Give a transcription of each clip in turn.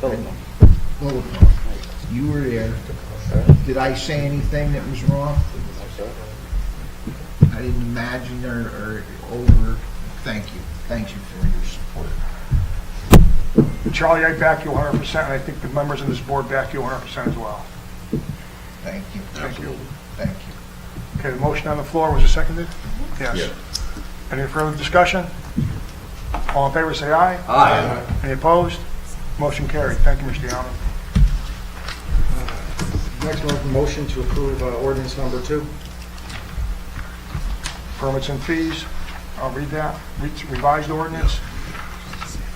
Philippa. Philippa, you were there. Did I say anything that was wrong? I didn't imagine or, or over, thank you, thank you for your support. Charlie, I back you 100%, and I think the members of this board back you 100% as well. Thank you. Thank you. Thank you. Okay, the motion on the floor, was it seconded? Yes. Any further discussion? All in favor, say aye. Aye. Any opposed? Motion carried. Thank you, Mr. Yonah. Next one, motion to approve uh, ordinance number two. Permits and fees, I'll read that, Re- revised ordinance.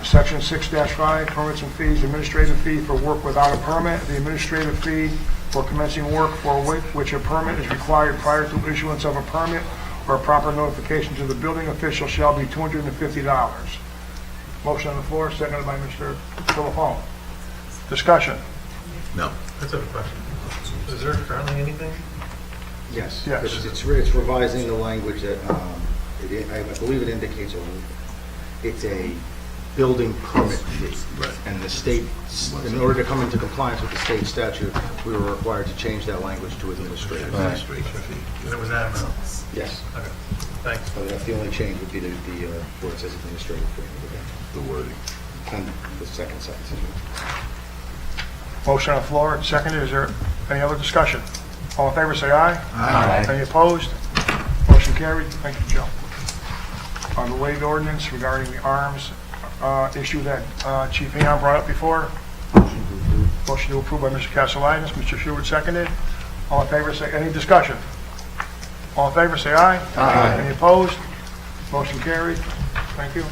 Section 6-5, permits and fees, administrative fee for work without a permit, the administrative fee for commencing work for which which a permit is required prior to issuance of a permit or proper notification to the building official shall be $250. Motion on the floor, seconded by Mr. Philippone. Discussion, That's a good question. Is there currently anything? Yes. Yes. It's- It's re- it's revising the language that, um, it i- I believe it indicates, a- it's a building permit fee. And the state, in order to come into compliance with the state statute, we were required to change that language to administrative. There was that amount. Yes, Okay, thanks. but that's the only change would be the, the, uh, where it says administrative fee. The wording. And the second sentence. Motion on the floor, and seconded, is there any other discussion? All in favor, say aye. Aye. Any opposed? Motion carried, thank you, Joe. On the waived ordinance regarding the arms uh, issue that uh, Chief Aon brought up before. Motion to approve by Mr. Castellitis, Mr. Stewart seconded. All in favor, say, any discussion? All in favor, say aye. Aye. Any opposed? Motion carried, thank you.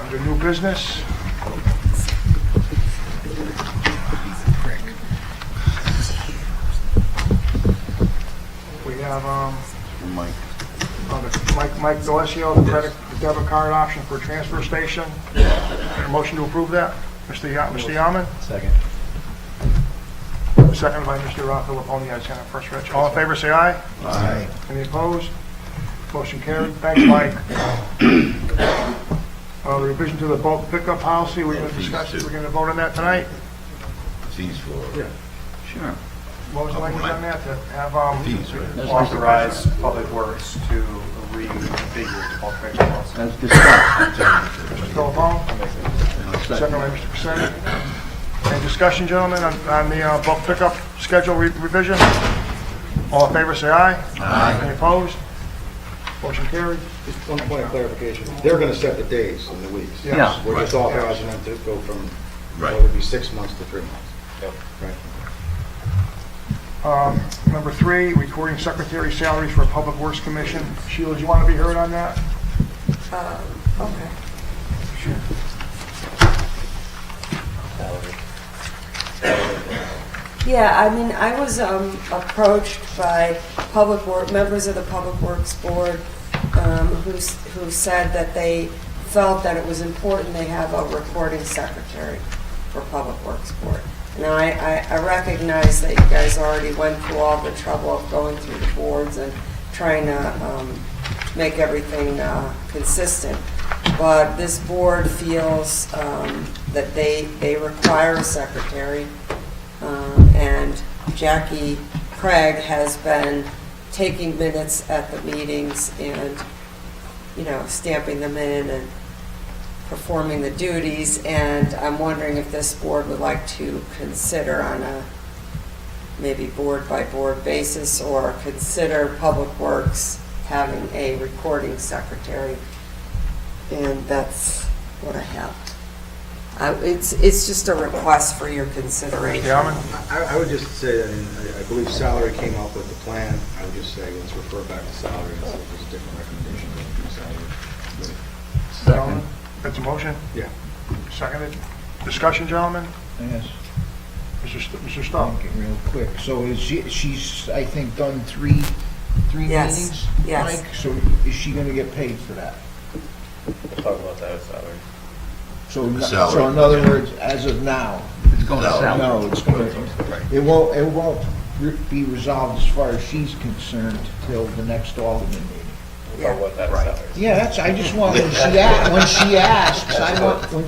Under new business, We have, um... Mike. Mike, Mike Delesio, the credit, the debit card option for transfer station. Motion to approve that, Mr. Ya, Mr. Yaman? Second. Second by Mr. Filipone, I sent it first, Rich. All in favor, say aye. Aye. Any opposed? Motion carried. Thanks, Mike. Uh, revision to the bulk pickup policy, we're gonna discuss, we're gonna vote on that tonight. fees for Sure. What was the language on that, to have, um... fees, right? authorize Public Works to reconfigure the bulk purchase policy. That's discussed. Telephone? Second by Mr. Pacini. Any discussion, gentlemen, on on the uh, bulk pickup schedule re- revision? All in favor, say aye. Aye. Any opposed? Motion carried. Just one point of clarification. They're going to set the days and the weeks. Yes. Yeah. We're just authorizing them to go from, what Right. would be six months to three months. Right. Um, Number three, recording secretary salaries for Public Works Commission. Sheila, do you want to be heard on that? Okay. Yeah, I mean, I was um, approached by public work, members of the Public Works Board um, who s- who said that they felt that it was important they have a recording secretary for Public Works Board. Now, I- I I recognize that you guys already went through all the trouble of going through the boards and trying to um, make everything uh, consistent, but this board feels um, that they they require a secretary um, and Jackie Craig has been taking minutes at the meetings and, you know, stamping them in and performing the duties, and I'm wondering if this board would like to consider on a maybe board-by-board basis, or consider Public Works having a recording secretary, and that's what I have. I- It's, it's just a request for your consideration. Gentlemen? I, I would just say that, in- I I believe salary came up with the plan. I would just say, let's refer back to salary and see if there's a different recommendation going from salary. Gentlemen, That's a motion? Yeah. Seconded. Discussion, gentlemen? Yes. Mr. St- Mr. I'll Stumpf? get real quick. So is she, she's, I think, done three, three Yes. meetings? Yes. Mike? So is she gonna get paid for that? We'll talk about that salary. So, n- Salary. so in other words, as of now, It's going to No. sell. no, it's gonna, it won't, it won't re- be resolved as far as she's concerned till the next Alderman meeting. We'll talk about that salary. Yeah, that's, I just want, when she, a- when she asks, I want, when